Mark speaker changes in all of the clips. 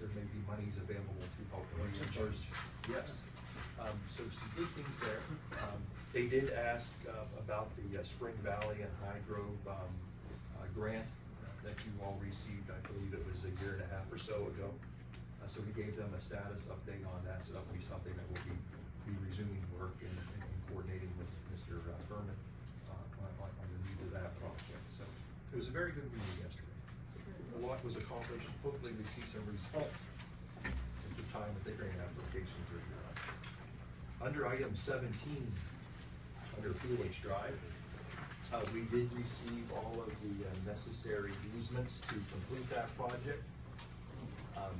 Speaker 1: the money's available to help reinsurers. Yes, um, so some good things there. Um, They did ask uh, about the uh, Spring Valley and High Grove, um, uh, grant that you all received, I believe it was a year and a half or so ago. Uh, so we gave them a status update on that, so that'll be something that will be, be resuming work and and coordinating with Mr. Furman, uh, on, on on the needs of that project, so. It was a very good meeting yesterday. A lot was accomplished, hopefully we see some results at the time that the grant applications are due. Under item seventeen, under Field Lakes Drive, uh, we did receive all of the uh, necessary easements to complete that project. Um,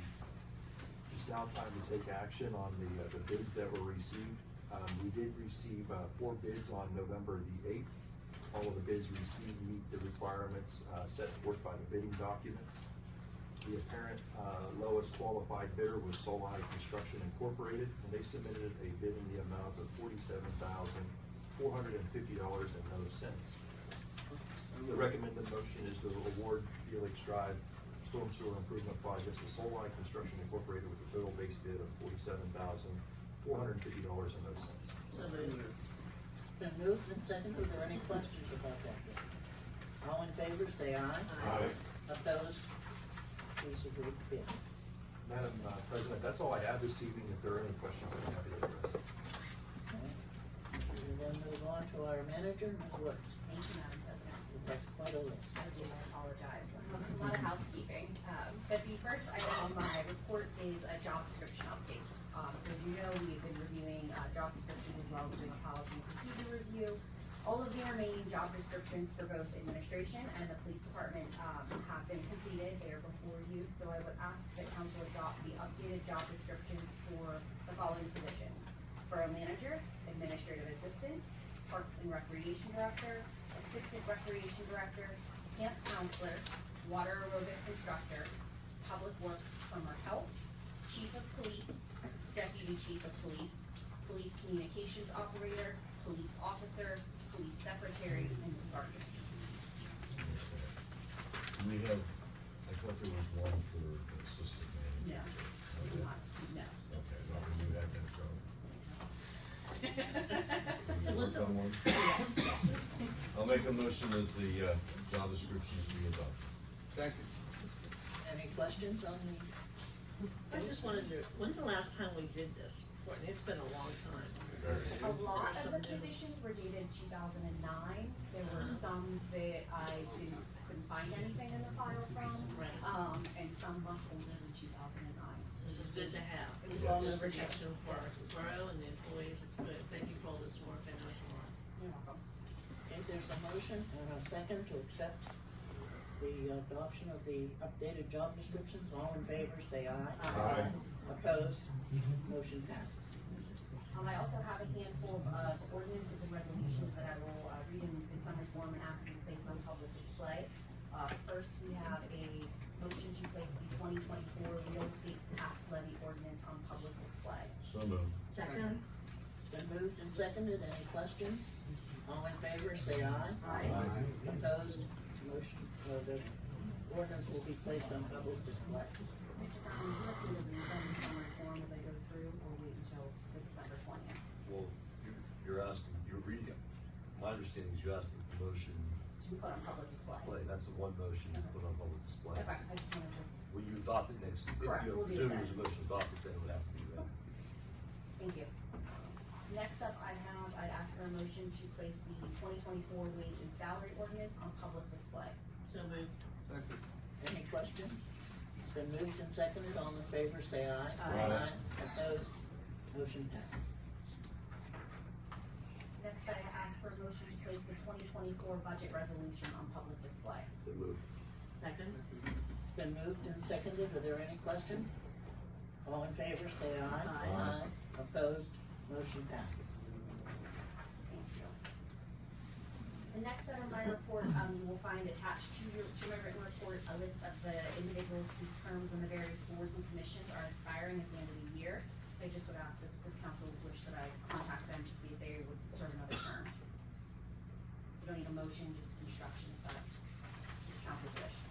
Speaker 1: It's now time to take action on the, uh, the bids that were received. Um, we did receive, uh, four bids on November the eighth. All of the bids received meet the requirements, uh, set forth by the bidding documents. The apparent, uh, lowest qualified bidder was Solai Construction Incorporated, and they submitted a bid in the amount of forty-seven thousand, four hundred and fifty dollars and no cents. The recommended motion is to award Felix Drive Storm Sewer Improvement Project to Solai Construction Incorporated with a total base bid of forty-seven thousand, four hundred and fifty dollars and no cents.
Speaker 2: So moved. It's been moved and seconded. Are there any questions about that bid? All in favor, say aye. Aye. Opposed? Please approve the bid.
Speaker 1: Madam uh, President, that's all I have this evening. If there are any questions, I'm happy to address.
Speaker 2: Okay. We will then move on to our manager, Ms. Woods.
Speaker 3: Thank you, Madam President.
Speaker 2: That's quite a list.
Speaker 3: I do apologize. Um, A lot of housekeeping. Um, But the first item on my report is a job description update. Um, So as you know, we've been reviewing uh, job descriptions as well as doing a policy and procedure review. All of the remaining job descriptions for both administration and the police department um, have been completed. They are before you. So I would ask that council adopt the updated job descriptions for the following positions. Borough manager, administrative assistant, Parks and Recreation Director, Assistant Recreation Director, Camp Counselor, Water Aerobics Instructor, Public Works Summer Help, Chief of Police, Deputy Chief of Police, Police Communications Operator, Police Officer, Police Secretary, and Sergeant.
Speaker 4: We have, I thought there was one for the assistant
Speaker 3: No,
Speaker 4: manager.
Speaker 3: we do not, no.
Speaker 4: Okay, no, we knew that, that's all. We
Speaker 3: Yes,
Speaker 4: worked on one.
Speaker 3: yes.
Speaker 4: I'll make a motion that the, uh, job descriptions be adopted.
Speaker 5: Second.
Speaker 2: Any questions on the,
Speaker 6: I just wanted to, when's the last time we did this? Courtney, it's been a long time.
Speaker 3: A lot of the
Speaker 6: Something.
Speaker 3: positions were dated two thousand and nine, there were some that I didn't, couldn't find anything in the file from,
Speaker 6: Right.
Speaker 3: um, and some much older than two thousand and nine.
Speaker 6: This is good to have.
Speaker 3: It was long
Speaker 6: Good
Speaker 3: overdue.
Speaker 6: Protection for our borough and the employees, it's good. Thank you for all this work, I know it's a lot.
Speaker 3: You're welcome.
Speaker 2: if there's a motion and a second to accept the adoption of the updated job descriptions, all in favor, say aye.
Speaker 4: Aye.
Speaker 2: Opposed? Motion passes.
Speaker 3: Um, I also have a handful of uh, ordinances and resolutions that I will uh, read in in summary form and ask you to place on public display. Uh, First, we have a motion to place the twenty twenty-four real estate tax levy ordinance on public display.
Speaker 4: So moved.
Speaker 6: Second?
Speaker 2: It's been moved and seconded. Any questions? All in favor, say aye.
Speaker 3: Aye.
Speaker 2: Opposed, motion, uh, the ordinance will be placed on public display.
Speaker 3: Mr. Brown, would you like me to read them in summary form as I go through, or wait until the December twentieth?
Speaker 4: Well, you, you're asking, you're reading them. My understanding is you're asking for motion,
Speaker 3: To put on public display?
Speaker 4: play, that's the one motion you put on public display.
Speaker 3: Okay, so I just wanted to,
Speaker 4: Will you adopt it next? if
Speaker 3: Correct,
Speaker 4: you
Speaker 3: we'll do
Speaker 4: presume
Speaker 3: that.
Speaker 4: there's a motion adopted, then it would have to be read.
Speaker 3: thank you. Next up, I have, I'd ask for a motion to place the twenty twenty-four wage and salary ordinance on public display.
Speaker 6: So moved.
Speaker 5: Second.
Speaker 2: Any questions? It's been moved and seconded. All in favor, say aye.
Speaker 4: Aye.
Speaker 2: Opposed, motion passes.
Speaker 3: Next, I ask for a motion to place the twenty twenty-four budget resolution on public display.
Speaker 4: So moved.
Speaker 6: Second?
Speaker 2: It's been moved and seconded. Are there any questions? All in favor, say aye.
Speaker 4: Aye.
Speaker 2: Opposed, motion passes.
Speaker 3: Thank you. The next set of my report, um, you will find attached to your, to my written report, a list of the individuals whose terms on the various boards and commissions are expiring at the end of the year. So I just would ask that this council would wish that I contact them to see if they would serve another term. You don't need a motion, just instructions, but this council's wish.